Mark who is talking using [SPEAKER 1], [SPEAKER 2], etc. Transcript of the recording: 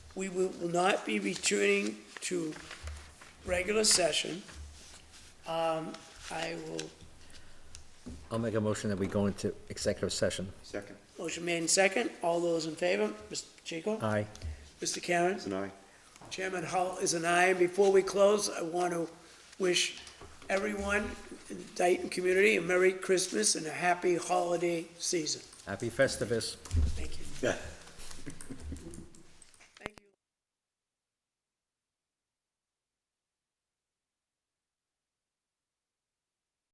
[SPEAKER 1] we will will not be returning to regular session. Um, I will,
[SPEAKER 2] I'll make a motion that we go into executive session.
[SPEAKER 3] Second,
[SPEAKER 1] motion made in second, all those in favor, Mr. Pacheco?
[SPEAKER 2] Aye.
[SPEAKER 1] Mr. Karen?
[SPEAKER 3] it's an aye.
[SPEAKER 1] Chairman Hull is an aye. Before we close, I want to wish everyone in the Dayton community a Merry Christmas and a happy holiday season.
[SPEAKER 2] Happy Festivus.
[SPEAKER 1] Thank you.
[SPEAKER 3] Yeah.